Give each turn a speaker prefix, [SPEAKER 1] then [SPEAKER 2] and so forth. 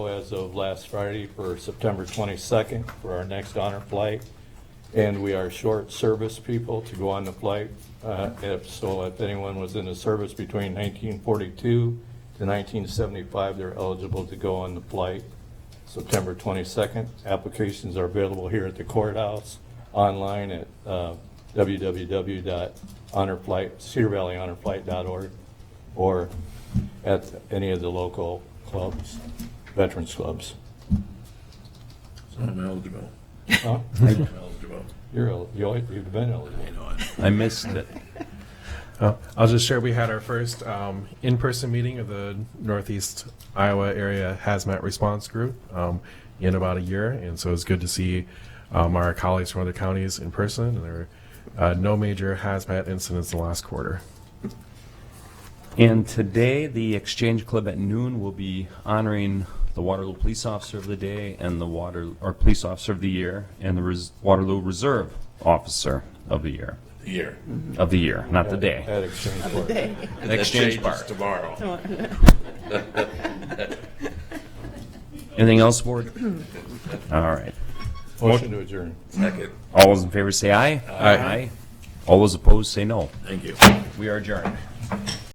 [SPEAKER 1] as of last Friday for September 22nd for our next honor flight. And we are short service people to go on the flight. Uh, If, so if anyone was in the service between 1942 to 1975, they're eligible to go on the flight September 22nd. Applications are available here at the courthouse, online at uh, www.honorflight, cedarvalleyhonorflight.org, or at any of the local clubs, veterans clubs.
[SPEAKER 2] So I'm eligible.
[SPEAKER 1] Huh?
[SPEAKER 2] I'm eligible.
[SPEAKER 1] You're, el- you always- you've been eligible.
[SPEAKER 2] You know it.
[SPEAKER 3] I missed it.
[SPEAKER 4] Uh, I'll just share we had our first um, in person meeting of the Northeast Iowa Area Hazmat Response Group um, in about a year. And so it's good to see um, our colleagues from other counties in person. And there were uh, no major hazmat incidents in the last quarter.
[SPEAKER 3] And today, the Exchange Club at noon will be honoring the Waterloo Police Officer of the Day and the Water, or Police Officer of the Year, and the Res- Waterloo Reserve Officer of the Year,
[SPEAKER 2] The year.
[SPEAKER 3] of the year, not the day.
[SPEAKER 1] At Exchange Court.
[SPEAKER 3] Exchange
[SPEAKER 2] That changes
[SPEAKER 3] Bar.
[SPEAKER 2] Tomorrow.
[SPEAKER 3] Anything else, Board? All right.
[SPEAKER 1] Motion to adjourn.
[SPEAKER 2] Second.
[SPEAKER 3] All those in favor say aye. Aye. All those opposed say no.
[SPEAKER 2] Thank you.
[SPEAKER 3] We are adjourned.